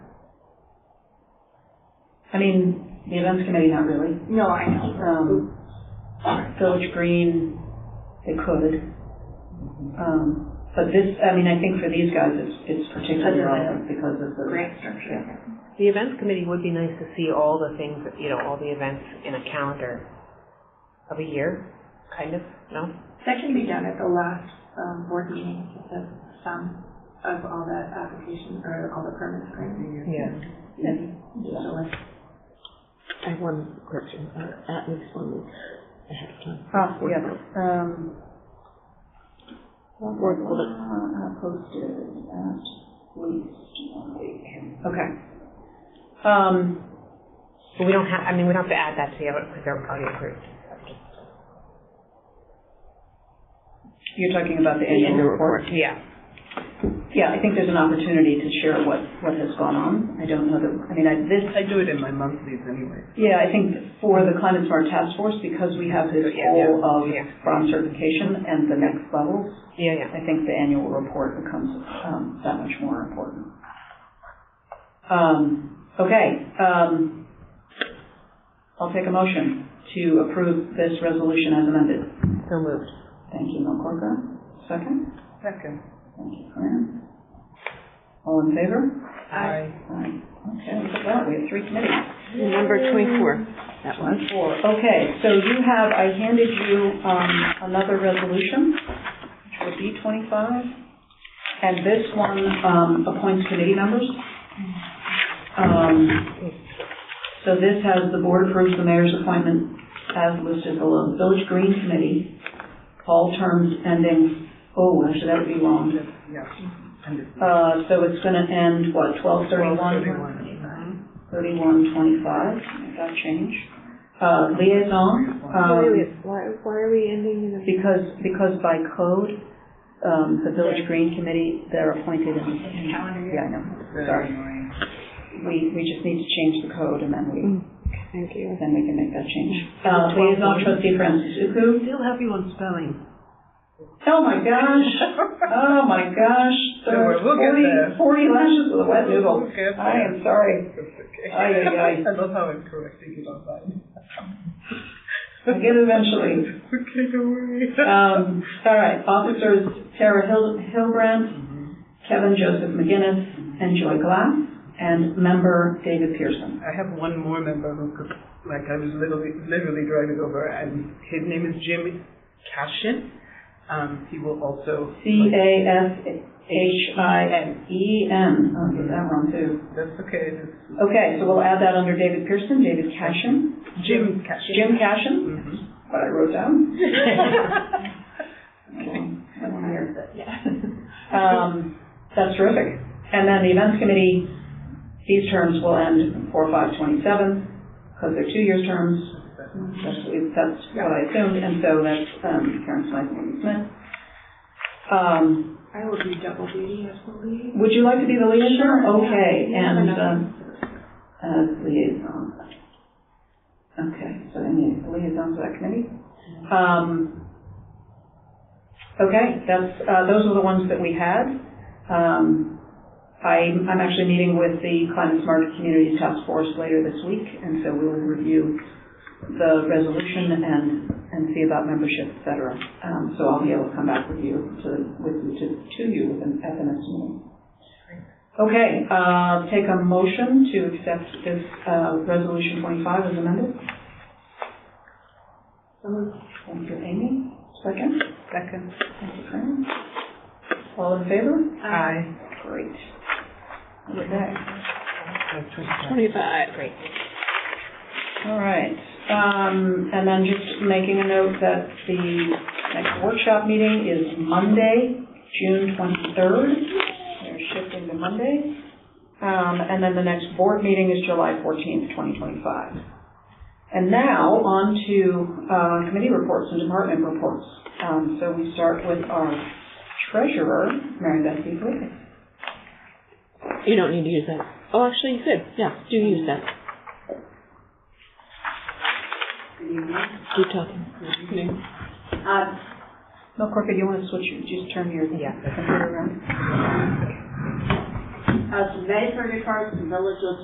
I mean, the events committee, not really. No, I know. Um, Village Green, they could. Um, but this, I mean, I think for these guys, it's, it's particularly Because of relevant because of the- the. Grant structure. The events committee would be nice to see all the things, you know, all the events in a calendar of a year, kind of, no? That can be done at the last, um, board meeting, just a sum of all the applications or all the permits, right? Yeah. And just a list. I have one correction, or at least one week ahead of time. Oh, yeah, um, Board will- posted uh, at least one week. Okay. Um, But we don't have, I mean, we don't have to add that to the other, because they're already approved. you're talking about the annual report? Yeah. Yeah, I think there's an opportunity to share what, what has gone on. I don't know that, I mean, I, this, I do it in my monthlies anyway. Yeah, I think for the Climate Smart Task Force, because we have this Yeah, yeah, goal of yeah. bronze certification and the next levels, Yeah, yeah. I think the annual report becomes um, that much more important. Um, Okay, um, I'll take a motion to approve this resolution as amended. So moved. Thank you, Mel Corker. Second? Second. Thank you, Corinne. All in favor? I Aye. Okay, look at that, we have three committees. Number twenty-four, that was. Four, okay, so you have, I handed you, um, another resolution, which would be twenty-five, and this one, um, appoints committee members. Um, so this has the board approves the mayor's appointment as listed below, Village Green Committee, all terms ending, oh, actually, that would be long. just, yeah. I'm just- Uh, so it's gonna end, what, twelve thirty-one? 12:31. Thirty-one twenty-five, that change. Uh, liaison, um, why, why are we ending in because, because by code, um, the Village Green Committee, they're appointed in. in- Calendar year. Yeah, I know, Very sorry. annoying. We, we just need to change the code and then we, Mm, Thank you. then we can make that change. Uh, liaison trustee Francis Uku. Still have you on spelling. Oh my gosh, oh my gosh. Don't worry, we'll get Forty- there. Forty lashes with a wet noodle. We'll get I there. am sorry. It's okay. Aye, aye, aye. I love how I'm correcting it online. I'll get it eventually. Okay, don't worry. Um, all right, officers Tara Hil- Hilbrand, Mm-hmm. Kevin Joseph McGinnis, and Joy Glass, and member David Pearson. I have one more member who could, like, I was literally, literally driving over, and his name is Jim Cashin. Um, he will also. E C-A-S-H-I-E-N, I'll get Oh, that wrong too. That's okay. That's Okay, so we'll add that under David Pearson, David Cashin, Jim Cashin. Jim Cashin, hmm what I wrote down. I don't hear that, Um, that's terrific. And then the events committee, these terms will end four, five, twenty-seven, because they're two-year terms. That's, what- that's what I assumed, and so that's, um, Karen Smythe and Wendy Smith. Um, I will do double duty as the lead. would you like to be the liaison? Okay, Yeah, and, another- um, as liaison. Okay, so any liaison to that committee? Um, okay, that's, uh, those are the ones that we had. Um, I, I'm actually meeting with the Climate Smart Communities Task Force later this week, and so we will review the resolution and, and see about membership, et cetera. Um, so I'll be able to come back with you to, with you to, to you with an, at the next meeting. Okay, uh, take a motion to accept this, uh, resolution twenty-five as amended. Thank you, Amy. Second? Second. Thank you, Fran. All in favor? Uh, Aye. Great. Okay, Twenty-five. Great. all right. Um, and then just making a note that the next workshop meeting is Monday, June twenty-third. They're shifting to Monday. Um, and then the next board meeting is July fourteenth, twenty twenty-five. And now, on to, uh, committee reports and department reports. Um, so we start with our treasurer, Mary Beth Beasley. You don't need to use that. Oh, actually, you could, yeah, do use that. Keep talking. Uh, No, Corker, you want to switch, your- just turn your Yeah. computer around? uh, so that is for the cards, the village will